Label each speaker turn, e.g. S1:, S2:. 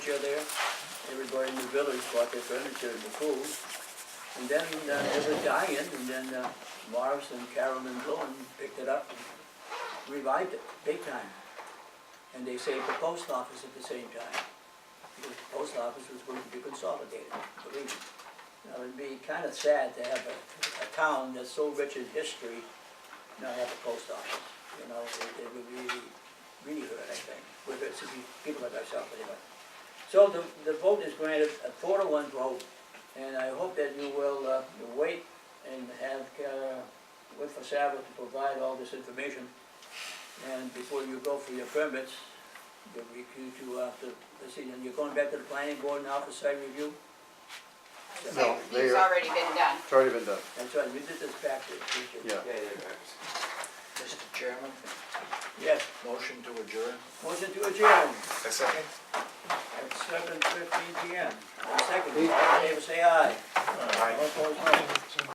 S1: furniture there, everybody in the village bought their furniture in the pool. And then uh, there was dying, and then uh, Morris and Carolyn Glowin picked it up and revived it, big time. And they saved the post office at the same time, because the post office was going to be consolidated, believe me. Now, it'd be kind of sad to have a, a town that's so rich in history not have a post office, you know, it it would really, really hurt, I think, with it, to be people like ourselves, anyway. So the, the vote is granted, a four to one vote, and I hope that you will, uh, wait and have, uh, with Fasava to provide all this information. And before you go for your permits, you'll be, you to, uh, to, let's see, and you're going back to the planning board now for site review?
S2: No,
S3: It's
S2: they-
S3: already been done.
S2: It's already been done,
S1: That's right, you did this backwards, did you?
S2: yeah.
S4: Yeah, yeah, yeah.
S5: Mr. Chairman,
S1: Yes,
S5: motion to adjourn.
S1: motion to adjourn
S4: A second?
S1: at seven fifteen P M. Second, all in favor, say aye.